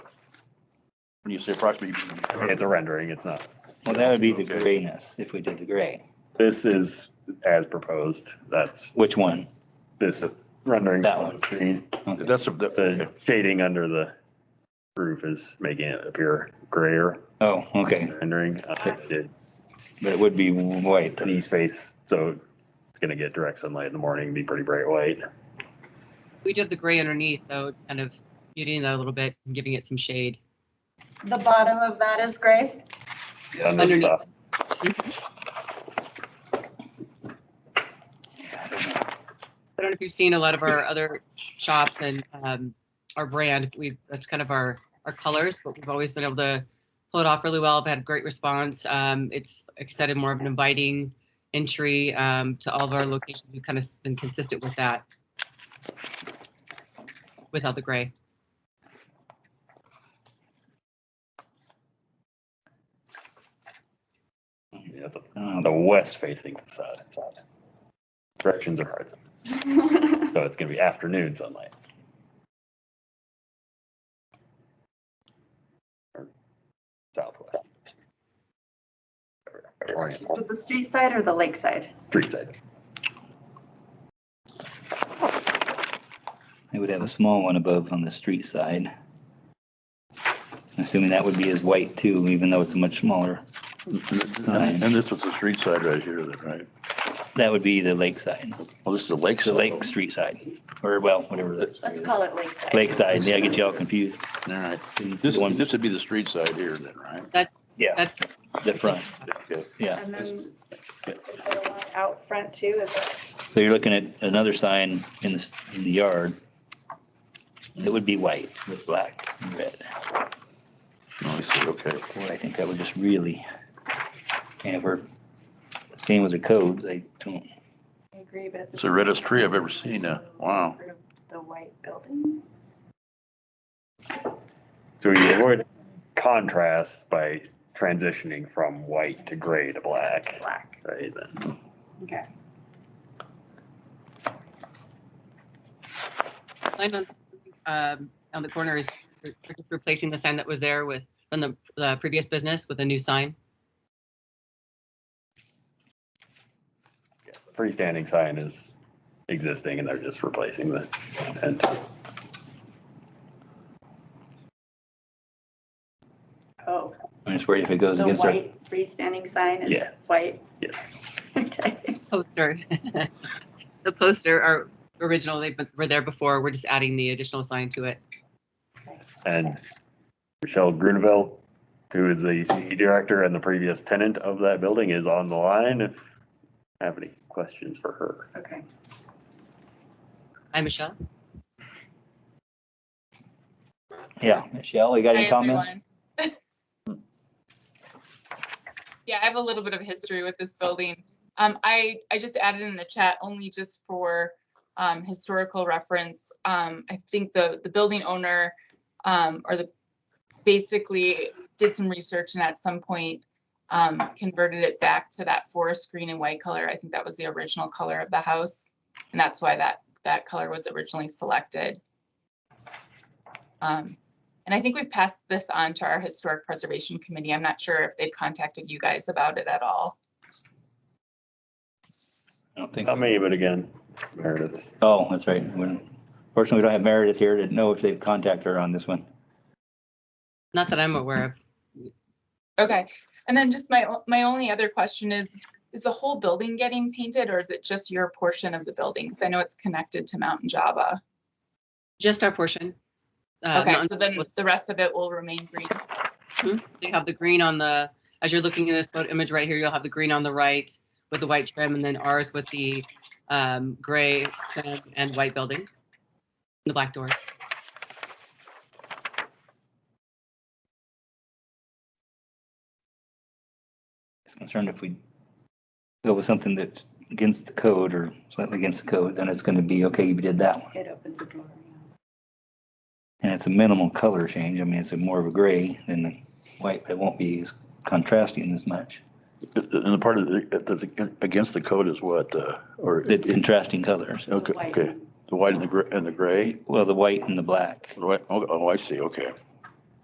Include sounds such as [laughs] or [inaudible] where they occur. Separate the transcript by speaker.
Speaker 1: When you say approximately.
Speaker 2: It's a rendering, it's not,
Speaker 3: Well, that would be the
Speaker 1: Okay.
Speaker 3: grayness, if we did the gray.
Speaker 2: this is as proposed, that's
Speaker 3: Which one?
Speaker 2: this rendering.
Speaker 3: That one.
Speaker 2: screen.
Speaker 3: Okay.
Speaker 1: That's, a- that- okay.
Speaker 2: The shading under the roof is making it appear grayer
Speaker 3: Oh, okay,
Speaker 2: rendering. Uh, It's
Speaker 3: but it would be white.
Speaker 2: an east face, so it's gonna get direct sunlight in the morning, be pretty bright white.
Speaker 4: We did the gray underneath though, kind of muting that a little bit and giving it some shade.
Speaker 5: The bottom of that is gray. [laughs]
Speaker 2: Under
Speaker 4: Underneath.
Speaker 2: stuff.
Speaker 4: I don't know if you've seen a lot of our other shops and um, our brand, we, that's kind of our, our colors, but we've always been able to pull it off really well. I've had great response. Um, It's extended more of an inviting entry um, to all of our locations. We've kind of been consistent with that. Without the gray.
Speaker 2: Yeah, the- uh, The west facing facade. Directions are hard, so it's gonna be afternoon sunlight. Or Southwest. Orient,
Speaker 5: Is it the street side or the lake side?
Speaker 2: street side.
Speaker 3: It would have a small one above on the street side. Assuming that would be as white too, even though it's a much smaller.
Speaker 1: And and this was the street side right here, then, right?
Speaker 3: That would be the lakeside,
Speaker 1: Well, this is the lake
Speaker 3: the
Speaker 1: side.
Speaker 3: lake street side, or well, whatever. that's-
Speaker 5: Let's call it lake side.
Speaker 3: Lakeside, yeah, I get you all confused.
Speaker 1: All right.
Speaker 3: It's
Speaker 1: This,
Speaker 3: the one,
Speaker 1: this would be the street side here then, right?
Speaker 4: That's,
Speaker 3: Yeah.
Speaker 4: that's,
Speaker 3: the front,
Speaker 1: Okay.
Speaker 3: yeah.
Speaker 6: And then is there one out front too? Is that,
Speaker 3: So you're looking at another sign in the, s- in the yard. It would be white with black and red.
Speaker 1: Oh, I see, okay.
Speaker 3: Boy, I think that would just really, and if we're staying with the codes, I don't,
Speaker 6: I agree, but.
Speaker 1: It's the reddest tree I've ever seen, uh, wow.
Speaker 6: The white building.
Speaker 2: So we avoid contrast by transitioning from white to gray to black. Black. Right, then.
Speaker 6: Okay.
Speaker 4: sign on, um, on the corner is we're just replacing the sign that was there with, from the, the previous business with a new sign.
Speaker 2: Yeah, the Freestanding sign is existing and they're just replacing the end.
Speaker 6: Oh,
Speaker 3: I'm just worried if it goes
Speaker 6: the
Speaker 3: against our.
Speaker 6: white freestanding sign is
Speaker 2: Yeah.
Speaker 6: white?
Speaker 5: [laughs]
Speaker 2: Yeah.
Speaker 6: Okay.
Speaker 4: poster. [laughs] The poster are original, they were there before, we're just adding the additional sign to it.
Speaker 2: And Michelle Grunewald, who is the CE director and the previous tenant of that building, is on the line. If you Have any questions for her?
Speaker 5: Okay.
Speaker 4: Hi, Michelle.
Speaker 3: Yeah, Michelle, you got any
Speaker 7: Hi,
Speaker 3: comments?
Speaker 7: everyone. [laughs] Yeah, I have a little bit of history with this building. Um, I, I just added in the chat only just for, um, historical reference. Um, I think the, the building owner, um, or the, basically did some research and at some point, um, converted it back to that forest green and white color. I think that was the original color of the house. And that's why that, that color was originally selected. Um, and I think we've passed this on to our Historic Preservation Committee. I'm not sure if they've contacted you guys about it at all.
Speaker 3: I don't think,
Speaker 2: Not me, but again, Meredith.
Speaker 3: oh, that's right. We're- Fortunately, we don't have Meredith here to know if they've contacted her on this one.
Speaker 4: Not that I'm aware of.
Speaker 7: Okay, and then just my, o- my only other question is, is the whole building getting painted or is it just your portion of the building? Because I know it's connected to Mountain Java.
Speaker 4: Just our portion. Uh,
Speaker 7: Okay,
Speaker 4: not-
Speaker 7: so then the rest of it will remain green.
Speaker 4: They have the green on the, as you're looking at this photo image right here, you'll have the green on the right with the white trim and then ours with the um, gray trim and white building. The black door.
Speaker 3: Just concerned if we go with something that's against the code or slightly against the code, then it's gonna be, okay, you did that one.
Speaker 6: It opens the door.
Speaker 3: And it's a minimal color change. I mean, it's a more of a gray than the white, but it won't be as contrasting as much.
Speaker 1: And the part of, the- uh, that's against the code is what, uh, or,
Speaker 3: The contrasting colors.
Speaker 6: The
Speaker 1: okay,
Speaker 6: white
Speaker 1: okay. The white and the gray, and the gray?
Speaker 3: Well, the white and the black.
Speaker 1: Right, oh, oh, I see, okay.